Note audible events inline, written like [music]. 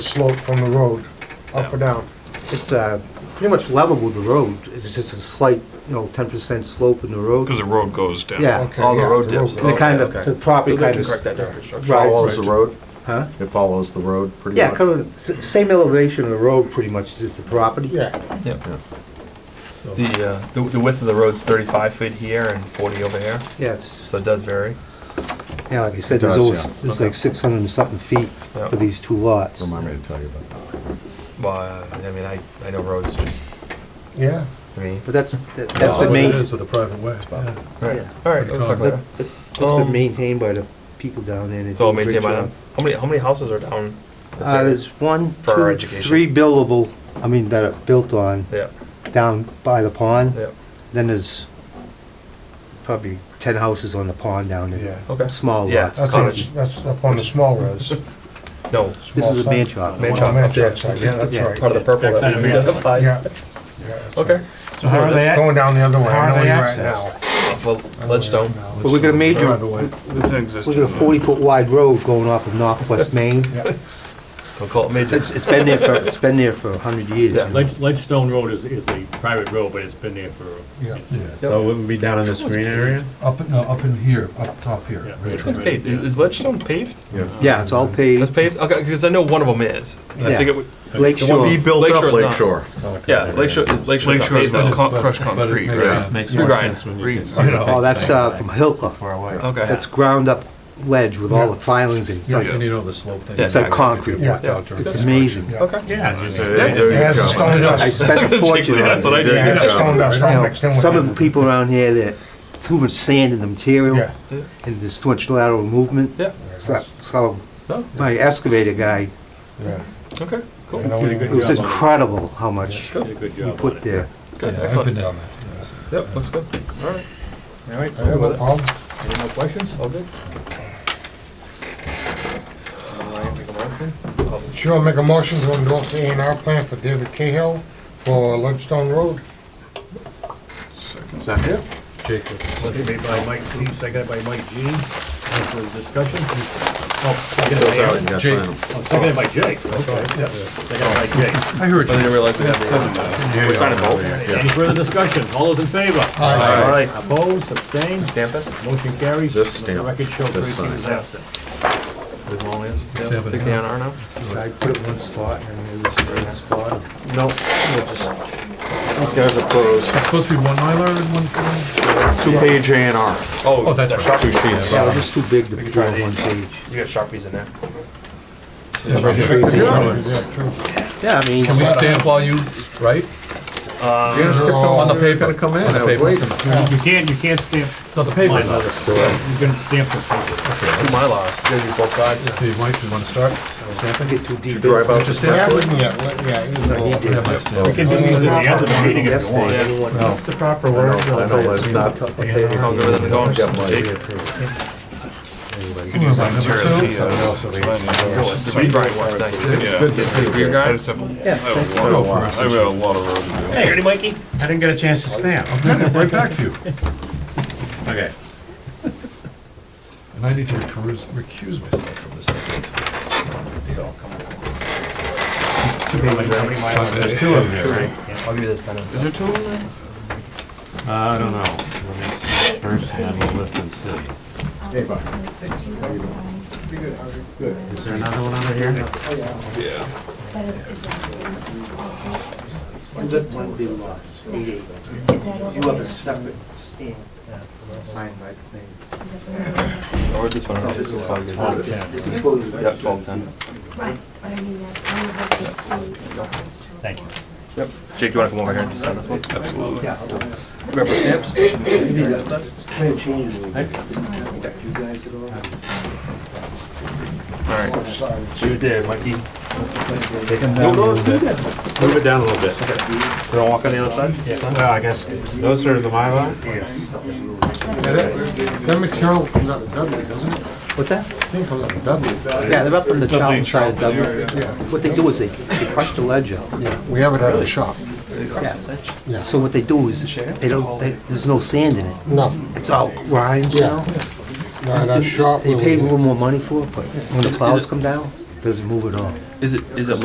slope from the road, up or down? It's uh, pretty much level with the road. It's just a slight, you know, 10% slope in the road. Because the road goes down. Yeah. Okay, All the yeah, road dips. And the kind of, Okay, the okay. property So they kind can of... correct that down. Sure. Right. Follows the road? Huh? It follows the road pretty much? Yeah, kind of, s- same elevation of the road, pretty much, as the property. Yeah, Yep. The, uh, the- the width of the road's 35 feet here and 40 over here, Yeah, it's- so it does vary. yeah, like I said, It there's does, always, yeah. there's like 600 and something feet Yeah. for these two lots. Remind me to tell you about Well, uh, I mean, I, I know roads just, yeah. I mean. But that's, that- that's the what main, It is with a private way. yeah. All right, Yes. all right, we'll talk later. that- that's Um, been maintained by the people down there. and they It's do all a great maintained by job. them. How many, how many houses are down this Uh, area? There's one, For our two, education. three buildable, I mean, that are built on, Yeah, down by the pond. yeah, Then there's probably ten houses on the pond down there. Yeah. okay. Small Yeah. lots. That's, Cottage. what- that's up on the small res. No, This is a small man side. shop. Man Oh, shop. man up there. shop side, yeah, Yeah. that's part right. of the purple Backside that of we the man. identified. Yeah. Yeah. Okay, So how are they at? Going down the other way, I How are know they where you're at now. accessed? well, Ledgestone, Now. But we're gonna major, Private way. It's an we're existing. gonna forty foot wide road going off [laughs] of Northwest Main. Yeah. we'll call it Major. It's, it's been there for, it's been there for a hundred years. Yeah. Ledge, Ledgestone Road is, is a private road, but it's been there for, Yeah. it's- Yeah, So it would be down in this green area? up, no, up in here, up top here. Yeah. right. It's paved. Is is Ledgestone paved? Yeah. Yeah, it's all paved. That's paved? Okay, because I know one of them is. I Yeah. figured, we- Lake The one Shore. He built Lakeshore up is not. Lake Shore. yeah, Lakeshore, is Lakeshore not Lakeshore is paved not though? con- crushed But- but it concrete, makes right? sense. Makes Yeah. more Grind. sense when you can Reeds. see the Oh, that's, thing. uh, from Hilka. Far away. Okay, That's ground up ledge with all the filings in it. It's Yeah, like, and you know the slope thing. Yeah, it's like concrete. Yeah. It's amazing. Yeah. okay. Yeah. It has a stone I dust, spent a [laughs] fortune Exactly, on that's it. what I it did. has a stone dust, You all know, mixed in with it. Some of the people around here that, too much sand in the material, Yeah. and there's too much lateral movement. Yeah, So, so no, my excavator guy, Yeah. okay, cool. You know, Did a good it was job on incredible how much did a good he job on put it. there. Good, Yeah, I've excellent. been down there. Yep, looks good. All right, All right, I have no problem. any more questions? all good. Uh, I can make a motion? Sure, I'll make a motion to endorse the A and R plan for David Cahill for Ledgestone Road. Second. Jacob. Motion made by Mike G, seconded by Mike G. Any further discussion? Oh, seconded Those out by, and got Jake. signed. oh, seconded by Jake, okay. Seconded by Jake. I heard I you. didn't realize we had. Yeah, We signed it yeah, both? yeah. Any further discussion? All those in favor? Aye. All right. Opposed, abstained, Stamp it? motion carries. This Let The stamp, record show this Tracy sign. is absent. Leave them all in. Stamp it. Take the A and R now? I put it in one spot and it was in that spot. No, just These guys are pros. It's supposed to be one Mylar and one. Two-page A and R. Oh, that's right. Two sheets. Yeah, it was just too big to We could put try on these. one page. You got Sharpies in there? Yeah, right here. Yeah, I mean, Can we stamp while you, right? Janice kept On Oh, telling the me you were gonna paper. come in. Uh, On the I was paper. waiting. You can't, you can't stamp No, the paper. mine, though. you can stamp the paper. Two Mylars, you gotta do both sides. Hey, Mike, you wanna start? Stamping? get too deep. Drive out. Just Yeah, stamp we it? can get, yeah. you can go He up. did. Yeah, We stamp it. can do this at the end of the meeting if you want. Yesterday. Sounds the proper word. I know, let's not- good, then go on. Got my- Jake? Number two? The rebrine works nice. It's good to see Your guy? I just have a I have a Go lot for of- it. I have a lot of road to do. Hey, ready, Mikey? I didn't get a chance to stamp. I'm gonna right back to you. Okay. And I need to recuse, recuse myself from this. event. There's two of them, right? I'll give you this pen. Is there two of them? Uh, I don't know. First handle lift and city. Hey, bud. Is there another one under here? Yeah. Just one big lot, eight acres. You have a separate stamp signed by the name. Or this one. This is all good. This is what you- Yeah, twelve ten. Thank you. Jake, you wanna come over here and just sign this one? Absolutely. Remember stamps? plan changes. Affect you guys at all? Alright. You did, Mikey. No, no, it's good. Move it down a little bit. You wanna walk on the other side? Well, I guess, those are the Mylars? Yes. Yeah, That that material comes out of Dudley, doesn't it? What's that? I think it comes out of Dudley. Yeah, they're up in the Charlton side of Dublin. What they do is they, they crush the ledge out. We have it at the shop. Yeah. So what they do is, they don't, they- there's no sand in it. No, It's all grind yeah. now. No, that shop. They will paid a be- little more money for it, but when the clouds come down, doesn't move at all. Is it, is it